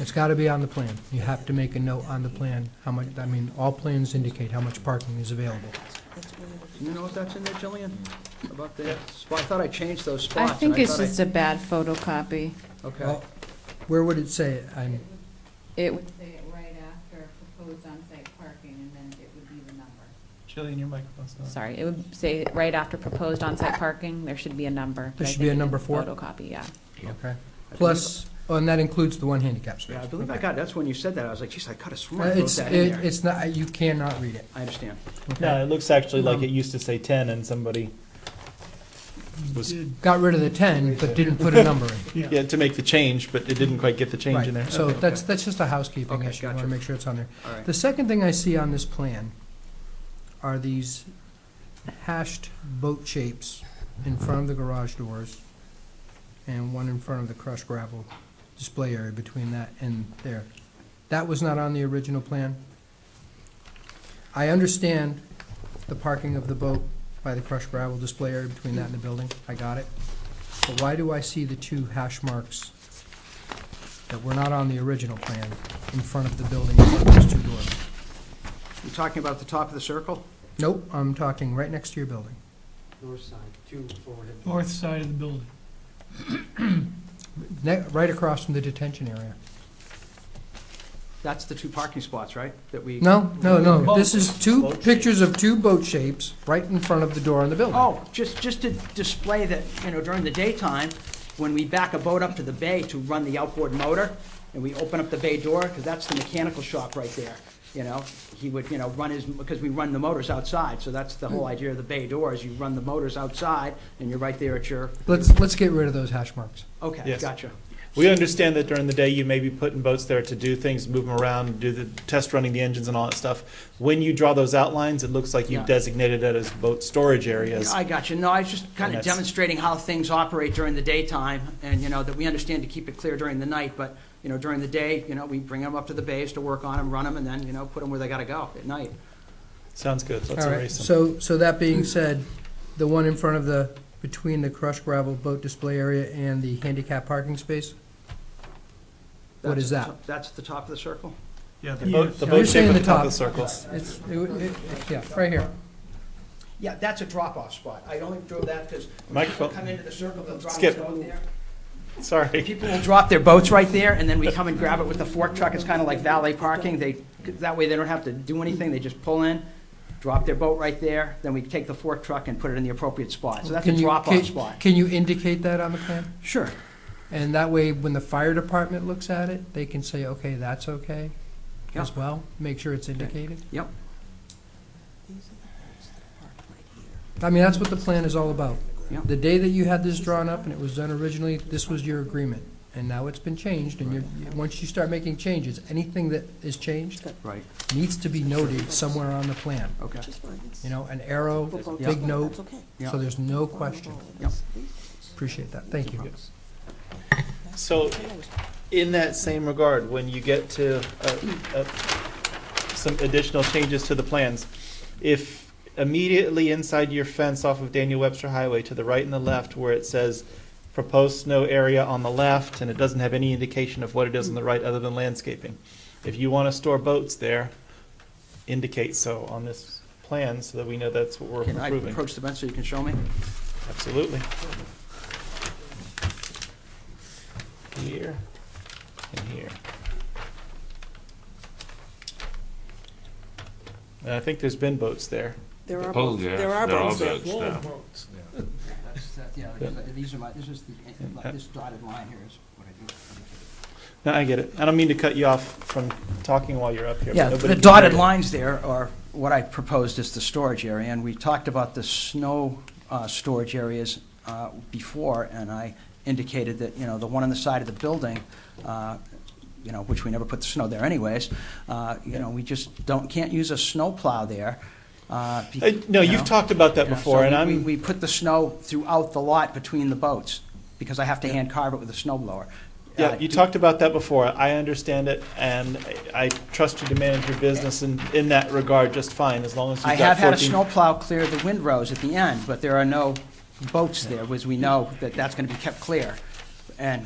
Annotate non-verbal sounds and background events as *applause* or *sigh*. It's got to be on the plan. You have to make a note on the plan, how much, I mean, all plans indicate how much parking is available. Do you know if that's in there, Jillian? About the, spot? I thought I changed those I spots. and think it's thought I- just a bad photocopy. Okay, Well, Where would it say it? I'm, It, would- would say it right after proposed on-site parking, and then it would be the number. Jillian, your microphone's not. sorry, it would say right after proposed on-site parking, there should be a number. but There I should be think a it number is four? Photocopy, yeah. okay. Plus, oh, and that includes the one handicap space. yeah, I believe I Okay. got, that's when you said that, I was like, geez, I could have Uh, sworn I wrote It's, that in it- there. it's not, you cannot read it. I understand. No, it looks actually like it used to say ten and somebody was, Got rid of the 10, but didn't put a number in. yeah, to make the change, but it didn't quite get the change in Right, there. So Okay, that's, okay. that's just a housekeeping Okay, issue. I want to gotcha. make sure it's on there. All right. The second thing I see on this plan are these hashed boat shapes in front of the garage doors and one in front of the crushed gravel display area between that and there. That was not on the original plan. I understand the parking of the boat by the crushed gravel display area between that and the building. I got it. But why do I see the two hash marks that were not on the original plan in front of the building in front of those two doors? You talking about the top of the circle? Nope, I'm talking right next to your building. North side, two forward. and- north side of the building. Ne- Right across from the detention area. That's the two parking spots, right? That we. No, no, no, this is two Boat pictures of two boat shapes right in front of the door on the building. Oh, just, just to display that, you know, during the daytime, when we back a boat up to the bay to run the outboard motor, and we open up the bay door, because that's the mechanical shop right there, you know? He would, you know, run his, because we run the motors outside, so that's the Mm. whole idea of the bay door, is you run the motors outside, and you're right there at your, Let's, let's get rid of those hash marks. okay, Yes. gotcha. We understand that during the day, you may be putting boats there to do things, move them around, do the test running the engines and all that stuff. When you draw those outlines, it looks like Yeah. you've designated it as boat storage areas. I got you. No, I was just kind And of that's- demonstrating how things operate during the daytime, and, you know, that we understand to keep it clear during the night, but, you know, during the day, you know, we bring them up to the bays to work on them, run them, and then, you know, put them where they gotta go at night. Sounds good, let's All right, erase them. so, so that being said, the one in front of the, between the crushed gravel boat display area and the handicap parking space? What That's is the that? top- That's the top of the circle? Yeah, the boat, the You're boat shape saying at the the top top. of the circle. It's, it- it- yeah, right here. Yeah, that's a drop-off spot. I only drew that because people Microphone. come into the circle, they'll drop Skip. their boat there. *laughs* Sorry. People will drop their boats right there, and then we come and grab it with the fork truck. It's kind of like valet parking. They, that way they don't have to do anything. They just pull in, drop their boat right there, then we take the fork truck and put it in the appropriate spot. So that's a Can you- can- drop-off spot. Can you indicate that on the plan? Sure. And that way, when the fire department looks at it, they can say, okay, that's okay as Yeah. well, make sure it's indicated. Yep. I mean, that's what the plan is all about. Yeah. The day that you had this drawn up and it was done originally, this was your agreement. And now it's been changed, and you're, you- once you start making changes, anything that is changed Right, needs to be noted somewhere on the plan. okay. You know, an arrow, Yeah. big note, Yeah. so there's no question. Yeah. Appreciate that, thank you. So, in that same regard, when you get to uh, uh, some additional changes to the plans, if immediately inside your fence off of Daniel Webster Highway to the right and the left where it says proposed snow area on the left and it doesn't have any indication of what it is on the right other than landscaping, if you want to store boats there, indicate so on this plan so that we know that's what we're Can I approving. approach the bench so you can show me? Absolutely. Here and here. And I think there's been boats there. There are, Oh, both- yeah, there are they're all boats there. boats now. These are my, this is the, this dotted line here is what I do. No, I get it. I don't mean to cut you off from talking while you're up here. but Yeah, nobody the can dotted hear you. lines there are what I proposed as the storage area, and we talked about the snow uh, storage areas uh, before, and I indicated that, you know, the one on the side of the building, uh, you know, which we never put the snow there anyways, uh, you know, we just don't, can't use a snowplow there. uh, be- Uh, No, you you've know. talked about that Yeah, so before and we- I'm. We we put the snow throughout the lot between the boats, because I have to hand carve it with a snow blower. Yeah, Uh, you talked about that before. I understand it, and I I trust you to manage your business in, in that regard just fine, as long as I you've got have had a 14 snowplow clear the windrows at the end, but there are no boats there, as we know, that that's going to be kept clear. And